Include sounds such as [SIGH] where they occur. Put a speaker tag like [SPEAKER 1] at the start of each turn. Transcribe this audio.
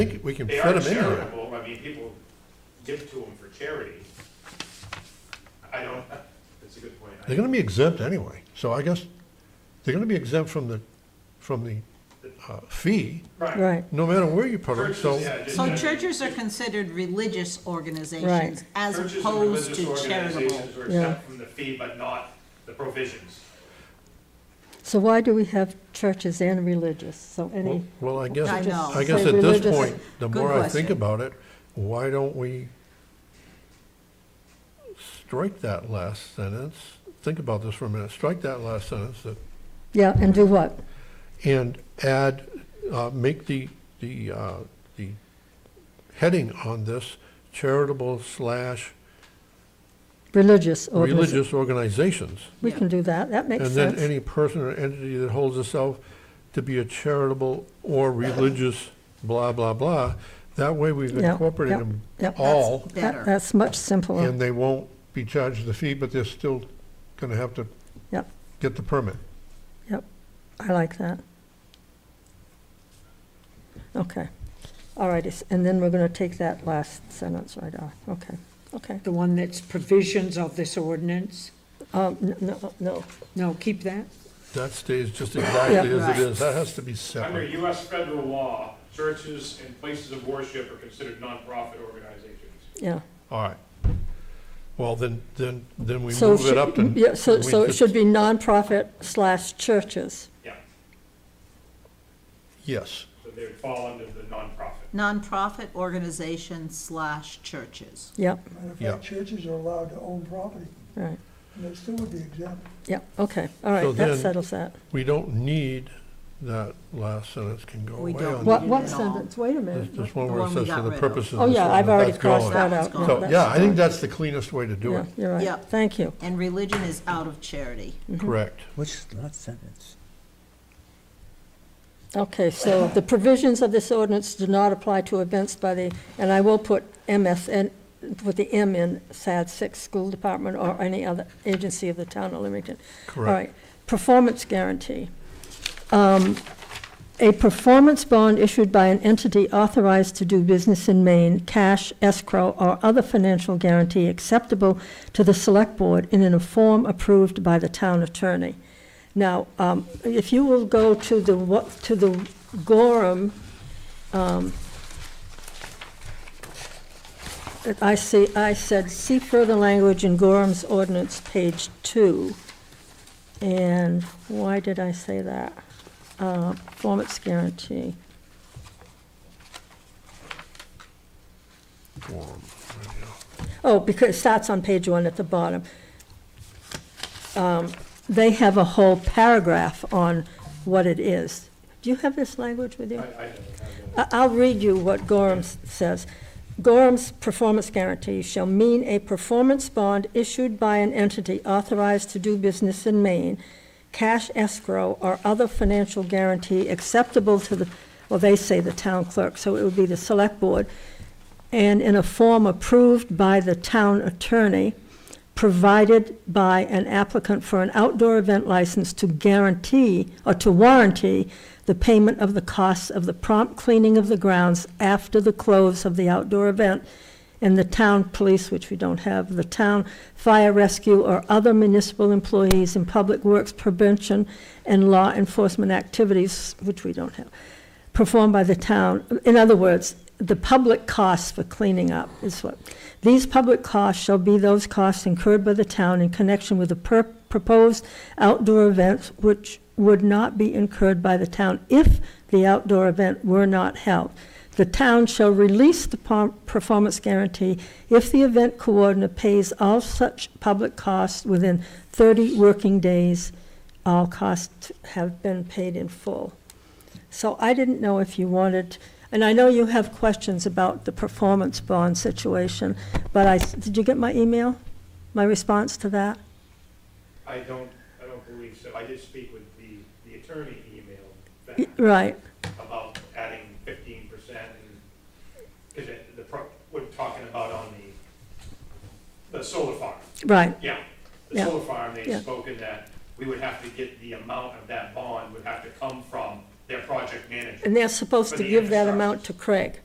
[SPEAKER 1] I think we can
[SPEAKER 2] They
[SPEAKER 1] fit
[SPEAKER 2] are
[SPEAKER 1] them in there.
[SPEAKER 2] charitable, I mean, people give to them for charity. I don't, [LAUGHS] that's a good point. I-
[SPEAKER 1] They're gonna be exempt anyway, so I guess they're gonna be exempt from the, from the uh, fee,
[SPEAKER 2] Right.
[SPEAKER 3] Right,
[SPEAKER 1] no matter where you put them, so.
[SPEAKER 2] Churches, yeah, just-
[SPEAKER 4] So churches are considered religious organizations
[SPEAKER 3] Right.
[SPEAKER 4] as
[SPEAKER 2] churches and
[SPEAKER 4] opposed to
[SPEAKER 2] religious
[SPEAKER 4] charitable.
[SPEAKER 2] organizations Are
[SPEAKER 3] Yeah.
[SPEAKER 2] exempt from the fee, but not the provisions.
[SPEAKER 3] so why do we have churches and religious, so
[SPEAKER 1] Well-
[SPEAKER 3] any,
[SPEAKER 1] Well, I guess,
[SPEAKER 4] I know.
[SPEAKER 1] I guess
[SPEAKER 3] Say
[SPEAKER 1] at this
[SPEAKER 3] religious.
[SPEAKER 1] point, the
[SPEAKER 4] Good
[SPEAKER 1] more I think
[SPEAKER 4] question.
[SPEAKER 1] about it, why don't we strike that last sentence? Think about this for a minute. Strike that last sentence that-
[SPEAKER 3] yeah, and do what?
[SPEAKER 1] and add, uh, make the, the, uh, the heading on this charitable slash
[SPEAKER 3] Religious or
[SPEAKER 1] religious organizations.
[SPEAKER 3] We can do that, that makes
[SPEAKER 1] And then
[SPEAKER 3] sense.
[SPEAKER 1] any person or entity that holds itself to be a charitable or religious blah, blah, blah. That way we've
[SPEAKER 3] Yeah,
[SPEAKER 1] incorporated
[SPEAKER 3] yeah,
[SPEAKER 1] them
[SPEAKER 3] yeah. That's-
[SPEAKER 1] all,
[SPEAKER 3] That-
[SPEAKER 4] Better.
[SPEAKER 3] That's much simpler,
[SPEAKER 1] and they won't be charged the fee, but they're still gonna have to
[SPEAKER 3] Yep.
[SPEAKER 1] get the permit.
[SPEAKER 3] yep, I like that. Okay, all righty, s- and then we're gonna take that last sentence right off, okay, okay.
[SPEAKER 5] The one that's provisions of this ordinance?
[SPEAKER 3] Um, n- no, no,
[SPEAKER 5] No, keep that.
[SPEAKER 1] That stays
[SPEAKER 3] [LAUGHS]
[SPEAKER 1] just exactly
[SPEAKER 4] Yeah.
[SPEAKER 1] as it is. That has to be
[SPEAKER 2] Under
[SPEAKER 1] separate.
[SPEAKER 2] US federal law, churches and places of worship are considered nonprofit organizations.
[SPEAKER 3] yeah.
[SPEAKER 1] All right. Well, then, then, then we
[SPEAKER 3] So
[SPEAKER 1] move
[SPEAKER 3] should-
[SPEAKER 1] it up and.
[SPEAKER 3] Yeah, so,
[SPEAKER 1] we
[SPEAKER 3] so it
[SPEAKER 1] just-
[SPEAKER 3] should be nonprofit slash churches,
[SPEAKER 2] Yeah,
[SPEAKER 1] Yes,
[SPEAKER 2] so they would fall under the nonprofit.
[SPEAKER 4] Nonprofit organizations slash churches.
[SPEAKER 3] yep,
[SPEAKER 6] Matter of
[SPEAKER 1] Yeah.
[SPEAKER 6] fact, churches are allowed to own property,
[SPEAKER 3] right,
[SPEAKER 6] and they still would be exempt.
[SPEAKER 3] yep, okay,
[SPEAKER 1] So
[SPEAKER 3] all right, that
[SPEAKER 1] then-
[SPEAKER 3] settles that.
[SPEAKER 1] we don't need that last sentence can go
[SPEAKER 4] We
[SPEAKER 1] away
[SPEAKER 4] don't
[SPEAKER 1] on
[SPEAKER 4] need
[SPEAKER 3] What,
[SPEAKER 1] that.
[SPEAKER 3] what
[SPEAKER 4] No.
[SPEAKER 3] sentence, wait a
[SPEAKER 1] There's
[SPEAKER 3] minute,
[SPEAKER 1] there's one
[SPEAKER 4] The
[SPEAKER 1] where it
[SPEAKER 4] one we
[SPEAKER 1] says
[SPEAKER 4] got
[SPEAKER 1] for the
[SPEAKER 4] rid of.
[SPEAKER 1] purposes.
[SPEAKER 3] Oh,
[SPEAKER 1] of
[SPEAKER 3] yeah,
[SPEAKER 1] this
[SPEAKER 3] I've
[SPEAKER 1] one,
[SPEAKER 3] already
[SPEAKER 1] that's gone.
[SPEAKER 3] crossed that out.
[SPEAKER 4] That's
[SPEAKER 3] No,
[SPEAKER 1] So,
[SPEAKER 3] that's
[SPEAKER 1] yeah, I think
[SPEAKER 3] gone.
[SPEAKER 1] that's the cleanest way to do
[SPEAKER 3] Yeah, mhm.
[SPEAKER 1] it,
[SPEAKER 3] you're
[SPEAKER 4] Yeah.
[SPEAKER 3] right, thank you,
[SPEAKER 4] And religion is out of charity.
[SPEAKER 1] correct.
[SPEAKER 7] Which is not sentence.
[SPEAKER 3] okay, so the provisions of this ordinance do not apply to events by the, and I will put MSN, with the M in SAD six, school department or any other agency of the town of Leamington. All
[SPEAKER 1] Correct.
[SPEAKER 3] right, performance guarantee. Um, A performance bond issued by an entity authorized to do business in Maine, cash, escrow, or other financial guarantee acceptable to the select board and in a form approved by the town attorney. Now, um, if you will go to the, wa- to the Gorham, um, I see, I said, see further language in Gorham's ordinance, page two. And why did I say that? Uh, Performance guarantee.
[SPEAKER 1] Form, right, yeah.
[SPEAKER 3] Oh, because it starts on page one at the bottom. Um, They have a whole paragraph on what it is. Do you have this language with you?
[SPEAKER 2] I, I don't have
[SPEAKER 3] I- I'll read you what Gorham s- says. Gorham's performance guarantee shall mean a performance bond issued by an entity authorized to do business in Maine, cash escrow or other financial guarantee acceptable to the, well, they say the town clerk, so it would be the select board, and in a form approved by the town attorney, provided by an applicant for an outdoor event license to guarantee or to warranty the payment of the costs of the prompt cleaning of the grounds after the close of the outdoor event and the town police, which we don't have, the town fire rescue or other municipal employees in public works prevention and law enforcement activities, which we don't have, performed by the town. In other words, the public costs for cleaning up is what, these public costs shall be those costs incurred by the town in connection with the per- proposed outdoor events which would not be incurred by the town if the outdoor event were not held. The town shall release the pom- performance guarantee if the event coordinator pays all such public costs within 30 working days. All costs have been paid in full. So I didn't know if you wanted, and I know you have questions about the performance bond situation, but I, did you get my email? My response to that?
[SPEAKER 2] I don't, I don't believe so. I did speak with the, the attorney emailed
[SPEAKER 3] Y-
[SPEAKER 2] back
[SPEAKER 3] Right,
[SPEAKER 2] about adding fifteen percent and, because the, pro- we're talking about on the, the solar farm.
[SPEAKER 3] right,
[SPEAKER 2] Yeah, the
[SPEAKER 3] Yeah.
[SPEAKER 2] solar farm, they
[SPEAKER 3] Yeah.
[SPEAKER 2] spoken that we would have to get the amount of that bond would have to come from their project manager.
[SPEAKER 3] and they're supposed to give that amount to Craig.